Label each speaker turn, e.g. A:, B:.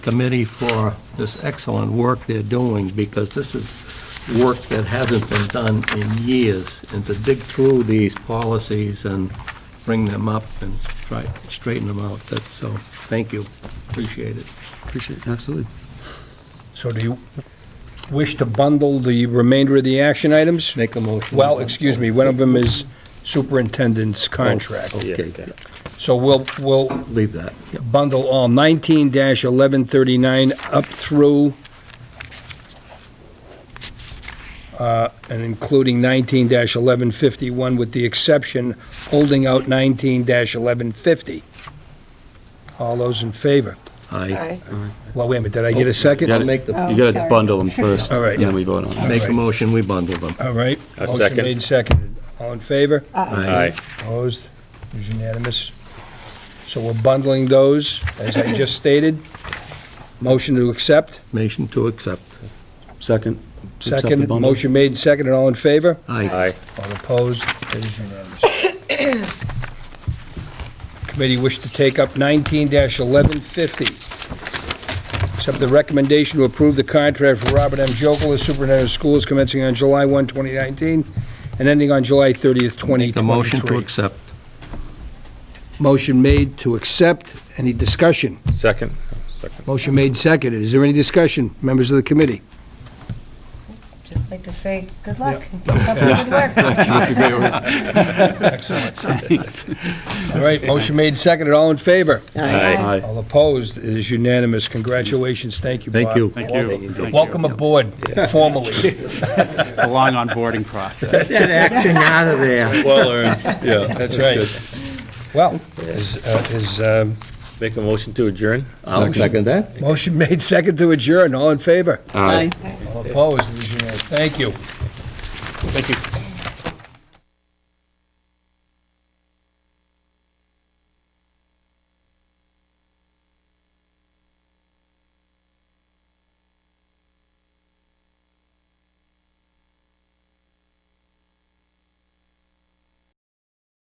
A: committee for this excellent work they're doing, because this is work that hasn't been done in years, and to dig through these policies and bring them up and try, straighten them out, that's, so, thank you, appreciate it.
B: Appreciate, it. absolutely.
C: So do you wish to bundle the remainder of the action items?
A: Make a motion.
C: Well, excuse me, one of them is superintendent's contract.
A: Oh, Okay,
C: So we'll, we'll
A: leave that, Yep.
C: bundle all 19-1139 up through, uh, and including 19-1151 with the exception, holding out 19-1150. All those in favor?
A: I
C: Well, wait a minute, did I get
A: Oh,
C: a second?
B: Yeah.
A: I'll make
D: Oh,
A: the,
B: You gotta bundle them first,
C: All right.
B: and then we vote on it.
A: make a motion, we bundle them.
C: All right.
D: A second.
C: Motion made, seconded. All in favor?
A: Aye.
C: Opposed? It was unanimous. So we're bundling those, as I just stated. Motion to accept,
A: Motion to accept.
B: Second. Accept the
C: second,
B: bundle.
C: motion made, seconded, all in favor?
A: Aye.
C: All opposed? It is unanimous. Committee wish to take up 19-1150. Accept the recommendation to approve the contract for Robert M. Jokel as superintendent of schools commencing on July 1, 2019, and ending on July 30th, 2023.
A: Make a motion to accept.
C: Motion made to accept. Any discussion?
D: Second? Second.
C: Motion made, seconded. Is there any discussion, members of the committee?
E: Just like to say, good luck, and keep up the good work.
C: Excellent. All right, motion made, seconded. All in favor?
D: Aye.
B: Aye.
C: All opposed? It is unanimous. Congratulations. Thank you, Bob.
A: Thank you.
F: Thank you. Thank
C: Welcome
F: you.
C: aboard formally.
F: It's a long onboarding process.
A: Get acting out of there.
D: Well earned, yeah.
C: That's right. Well, is, uh, is, um,
D: Make a motion to adjourn?
A: I'll second that.
C: motion made, second to adjourn. All in favor?
B: Aye.
C: All opposed? It is unanimous. Thank you.
D: Thank you.